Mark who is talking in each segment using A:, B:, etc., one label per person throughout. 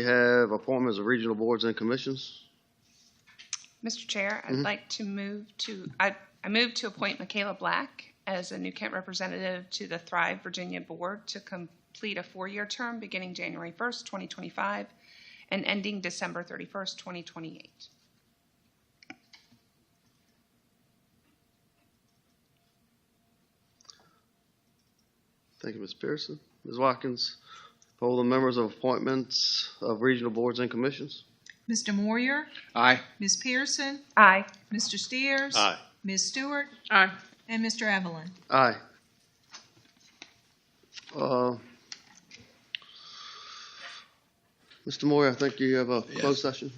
A: We have appointments of regional boards and commissions.
B: Mr. Chair, I'd like to move to, I, I move to appoint Michaela Black as a New Kent representative to the Thrive Virginia Board to complete a four-year term beginning January 1st, 2025, and ending December 31st, 2028.
A: Thank you, Ms. Pearson. Ms. Watkins, poll the members of appointments of regional boards and commissions.
C: Mr. Moyer,
D: Aye.
C: Ms. Pearson,
B: Aye.
C: Mr. Steers. Ms. Stewart,
B: Aye.
C: and Mr. Evelyn.
A: Aye. Uh, Mr. Moyer, I think you have a closed session.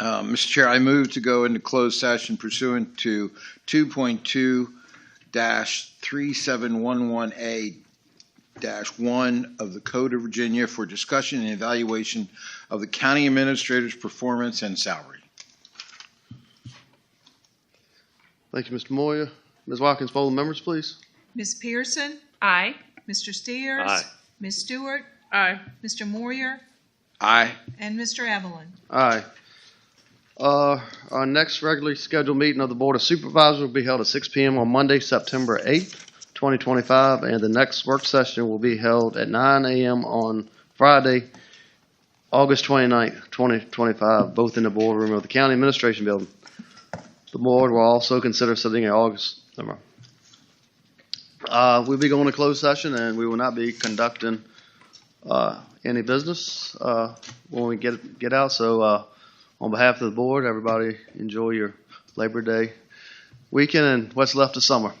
D: Uh, Mr. Chair, I move to go into closed session pursuant to 2.2-3711A-1 of the Code of Virginia for discussion and evaluation of the county administrator's performance and salary.
A: Thank you, Mr. Moyer. Ms. Watkins, poll the members, please.
C: Ms. Pearson,
B: Aye.
C: Mr. Steers.
A: Aye.
C: Ms. Stewart,
B: Aye.
C: Mr. Moyer,
D: Aye.
C: and Mr. Evelyn.
A: Aye. Uh, Our next regularly scheduled meeting of the Board of Supervisors will be held at 6 PM on Monday, September 8th, 2025, and the next work session will be held at 9 AM on Friday, August 29th, 2025, both in the boardroom of the County Administration Building. The board will also consider setting an August, never mind. Uh, We'll be going to closed session, and we will not be conducting uh, any business. Uh, when we get, get out. So, uh, on behalf of the board, everybody enjoy your Labor Day weekend and what's left of summer.